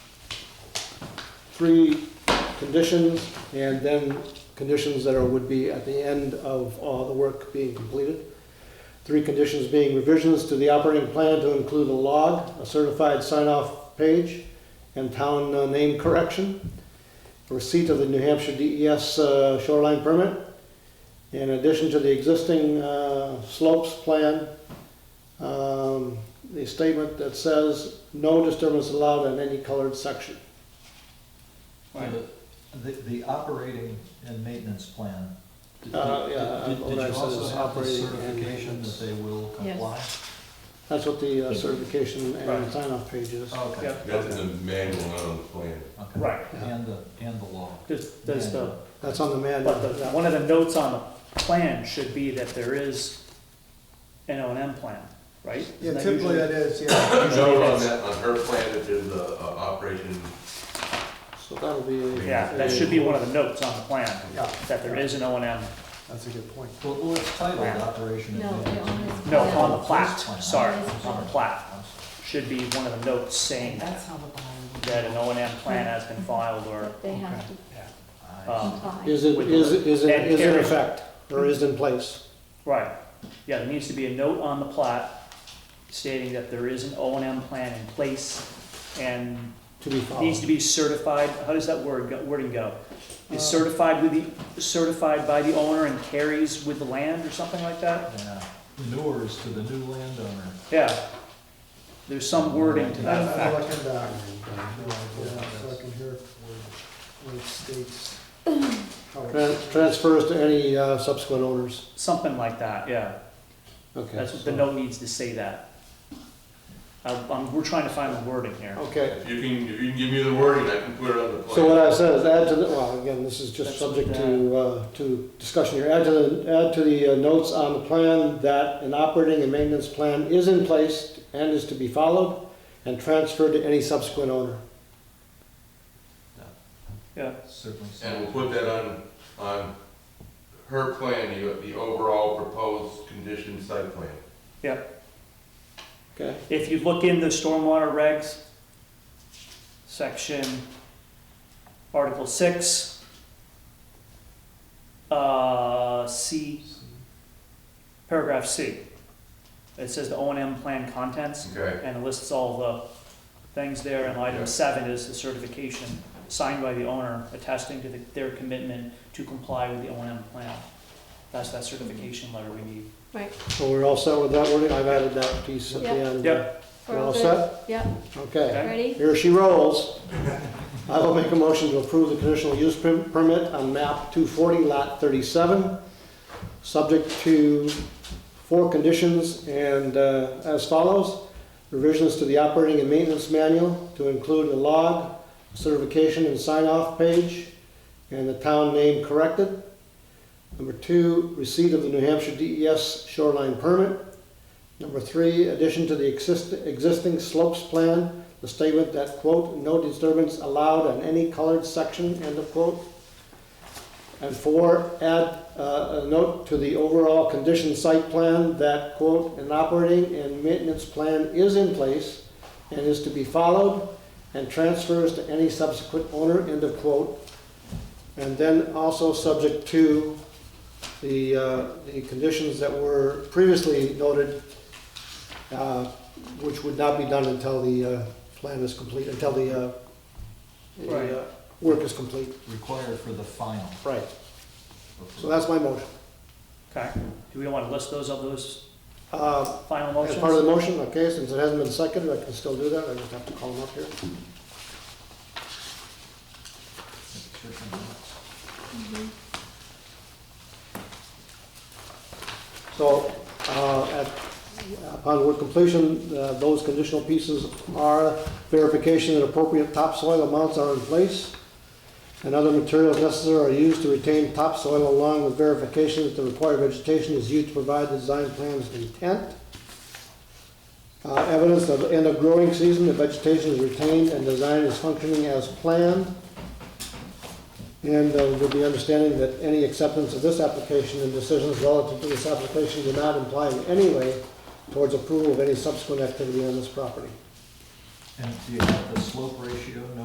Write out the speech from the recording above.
three conditions, and then conditions that are, would be at the end of uh, the work being completed. Three conditions being revisions to the operating plan to include a log, a certified sign-off page, and town uh, name correction, receipt of the New Hampshire DES uh, shoreline permit, in addition to the existing uh, slopes plan, um, the statement that says, "No disturbance allowed in any colored section." Did, The, the operating and maintenance plan, did- Uh, yeah, did- what did I you said also is have the operating and certification that maintenance. they will Yes. comply? That's what the uh, certification and Right. Oh. sign-off page is. Oh, Okay, That's in the manual, not on the plan. okay. Right. And the, and the law. There's, there's the, That's on the man. but the, one of the notes on the plan should be that there is an O and M plan, right? Yeah, Isn't that typically usually- it is, yeah. Note on that, on her plan, that there's a, a operation, So that'll be. a- Yeah, that should be one of the notes on the plan, Yeah, that there is an O and M, that's a good point. Well, well, it's titled Plan. operation No, and it maintenance. always- no, Yeah. on the plat, This plan. sorry, I'm This on the sorry. plat, I'm sorry. should be one of the notes saying That's how the bylaw. that an O and M plan has been filed or, They have to I- um, comply. Is it, is, it- is it, And is in carry. effect, or is in place? Right, yeah, there needs to be a note on the plat stating that there is an O and M plan in place and To be needs to followed. be certified, how does that word, go- wording go? Uh, Is certified with the, certified by the owner and carries with the land or something like that? Yeah. Uh, Manures to the new landowner. Yeah, there's some wording to that I'm effect. looking back, yeah, so I can hear where it states. how it's- Tran- Transfers to any uh, subsequent owners. something like that, yeah. Okay. That's, what the note needs to say that. I, I'm, we're trying to find the wording here. Okay, if you can, if you can give me the wording, I can put it on the plan. so what I said is add to the, well, again, this is just That's subject what, to, uh, to discussion here. Add to the, add to the uh, notes on the plan that an operating and maintenance plan is in place and is to be followed and transferred to any subsequent owner. Yeah, Certainly. so. And we'll put that on, on her plan, the, the overall proposed condition site plan. yeah. Okay? If you look in the stormwater regs, section, article six, uh, C, paragraph C. It says the O and M plan contents, Okay, and it lists all the things there, and item Yeah. seven is the certification signed by the owner attesting to the- their commitment to comply with the O and M plan. That's that certification letter we need. Right, So we're all set with that wording? I've added that piece at the Yep. end. Yep, we're We're all all good. set? Yep, Okay. ready? Here she rolls. I will make a motion to approve the conditional use per- permit on map 240, lot 37, subject to four conditions and uh, as follows. Revisions to the operating and maintenance manual to include a log, certification and sign-off page, and the town name corrected. Number two, receipt of the New Hampshire DES shoreline permit. Number three, addition to the exist- existing slopes plan the statement that, quote, "no disturbance allowed on any colored section," end of quote. And four, add uh, a note to the overall condition site plan that, quote, "an operating and maintenance plan is in place and is to be followed and transfers to any subsequent owner," end of quote. And then also subject to the, uh, the conditions that were previously noted, uh, which would not be done until the uh, plan is complete, until the, uh, Right. the uh, work is complete. Required for the final. Right. So that's my motion. okay. Do we want to list those of those Uh, final As motions? part of the motion, okay, since it hasn't been seconded, I can still do that, I just have to call them up here. So, uh, at- upon wood completion, uh, those conditional pieces are verification that appropriate topsoil amounts are in place, and other materials necessary are used to retain topsoil along with verification that the required vegetation is used to provide the design plan's intent. Uh, Evidence of end of growing season, the vegetation is retained and design is functioning as planned. And uh, with the understanding that any acceptance of this application and decisions relative to this application do not imply in any way towards approval of any subsequent activity on this property. And do you have the slope ratio